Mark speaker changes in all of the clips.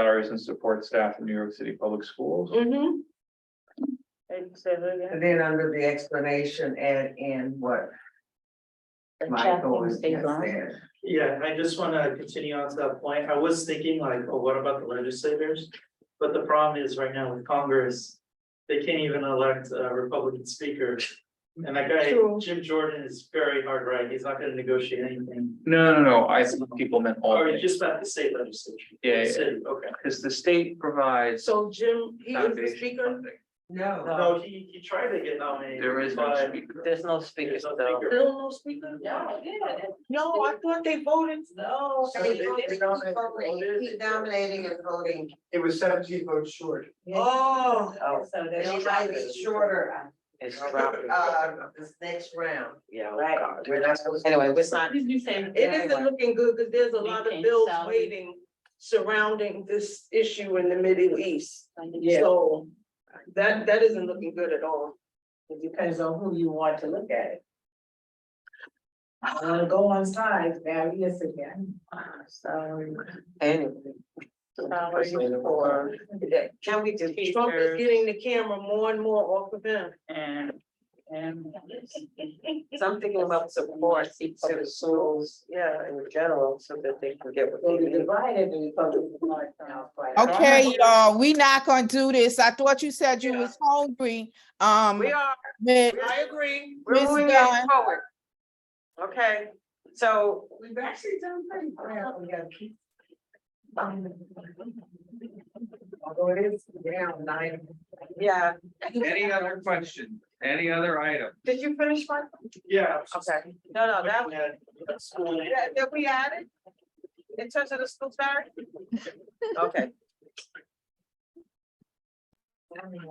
Speaker 1: hires and support staff in New York City Public Schools.
Speaker 2: Mm-hmm. I'd say that
Speaker 3: And then under the explanation, add in what
Speaker 2: again.
Speaker 3: Michael
Speaker 2: Checking
Speaker 3: has
Speaker 2: stays
Speaker 3: just
Speaker 2: on.
Speaker 3: said.
Speaker 4: Yeah, I just wanna continue on to that point. I was thinking like, oh, what about the legislators? But the problem is right now with Congress, they can't even elect a Republican speaker. And that guy,
Speaker 2: True.
Speaker 4: Jim Jordan is very hard right. He's not gonna negotiate anything.
Speaker 1: No, no, no, I think people meant all,
Speaker 4: Or you just about the state legislature.
Speaker 1: Yeah, yeah.
Speaker 4: City, okay.
Speaker 1: because the state provides.
Speaker 2: So Jim, he is the
Speaker 1: foundation
Speaker 2: speaker,
Speaker 1: funding.
Speaker 5: Uh-huh.
Speaker 3: No,
Speaker 4: No, he, he tried to get nominated.
Speaker 1: There is no
Speaker 4: but
Speaker 1: speaker.
Speaker 5: There's no
Speaker 4: there's
Speaker 5: speakers
Speaker 4: no
Speaker 5: though.
Speaker 4: speaker.
Speaker 2: still no speaker?
Speaker 4: No, yeah.
Speaker 2: No, I thought they voted. No.
Speaker 4: So they- they nominated-
Speaker 3: he's nominating and voting.
Speaker 6: It was seventeen votes short.
Speaker 2: Oh.
Speaker 3: Oh,
Speaker 5: so
Speaker 3: It might be shorter,
Speaker 5: It's dropping.
Speaker 3: uh, this next round.
Speaker 5: Yeah.
Speaker 3: Right. We're not supposed to.
Speaker 5: Anyway, we're not.
Speaker 2: It isn't looking good because there's a lot of
Speaker 7: Maintain
Speaker 2: bills
Speaker 7: salary.
Speaker 2: waiting surrounding this issue in the Middle East.
Speaker 3: Yeah.
Speaker 2: So that, that isn't looking good at all.
Speaker 3: It depends on who you want to look at it. I wanna go on sides, now, yes, again.
Speaker 5: Anyway.
Speaker 3: Or,
Speaker 5: Can we just?
Speaker 2: Trump is getting the camera more and more off of him.
Speaker 7: And, and.
Speaker 5: Something about support to the schools, yeah, in general, so that they can get what they need.
Speaker 8: Okay, y'all, we not gonna do this. I thought you said you
Speaker 2: Yeah.
Speaker 8: was hungry. Um,
Speaker 2: We are,
Speaker 8: Mi-
Speaker 2: I agree.
Speaker 8: Miss
Speaker 5: moving
Speaker 8: Dunn,
Speaker 5: Forward. Okay, so
Speaker 3: We've actually done pretty well, we gotta keep. Although it is down nine.
Speaker 5: Yeah,
Speaker 1: Any other question, any other item?
Speaker 5: did you finish one?
Speaker 4: Yeah.
Speaker 5: Okay, no, no, that, was-
Speaker 4: School.
Speaker 5: that that we added? In terms of the school fair? Okay.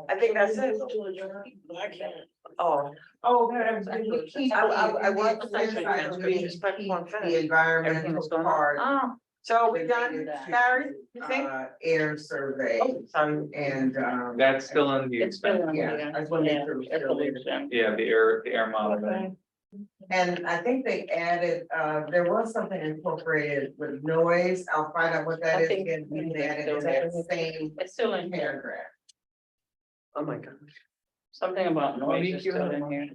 Speaker 5: I think that's it.
Speaker 2: I can't.
Speaker 5: Oh,
Speaker 3: Oh, I, I, I want to say that we keep the environmental part.
Speaker 2: Ah,
Speaker 7: Oh,
Speaker 5: so we done, Barry, you think?
Speaker 3: Uh, air survey
Speaker 5: Oh, sorry.
Speaker 3: and, um.
Speaker 1: That's still in the,
Speaker 7: it's been.
Speaker 3: Yeah, I just wanna make sure.
Speaker 7: Yeah, evolution.
Speaker 1: yeah, the air, the air monitoring.
Speaker 3: And I think they added, uh, there was something incorporated with noise. I'll find out what that
Speaker 7: I
Speaker 3: is
Speaker 7: think-
Speaker 3: again. We added in that same
Speaker 7: It's still in here,
Speaker 3: paragraph.
Speaker 5: Oh, my God.
Speaker 7: something
Speaker 5: Hmm.
Speaker 7: about noise is still in here.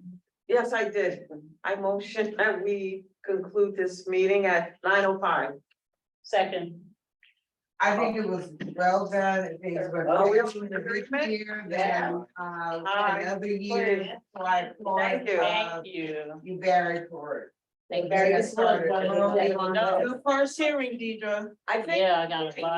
Speaker 5: Yes, I did. I motion that we conclude this meeting at nine oh five.
Speaker 7: Second.
Speaker 3: I think it was well done and things were.
Speaker 5: Oh, we have
Speaker 3: great
Speaker 5: improvement?
Speaker 3: Here
Speaker 7: Yeah.
Speaker 3: than, uh, another year. So I applaud,
Speaker 5: Thank you.
Speaker 3: uh,
Speaker 7: Thank you.
Speaker 3: You Barry for it.
Speaker 7: Thank
Speaker 3: Very good.
Speaker 7: you.
Speaker 3: Well,
Speaker 7: No.
Speaker 2: Your first hearing, Deidre.
Speaker 5: I think
Speaker 7: Yeah, I got a lot.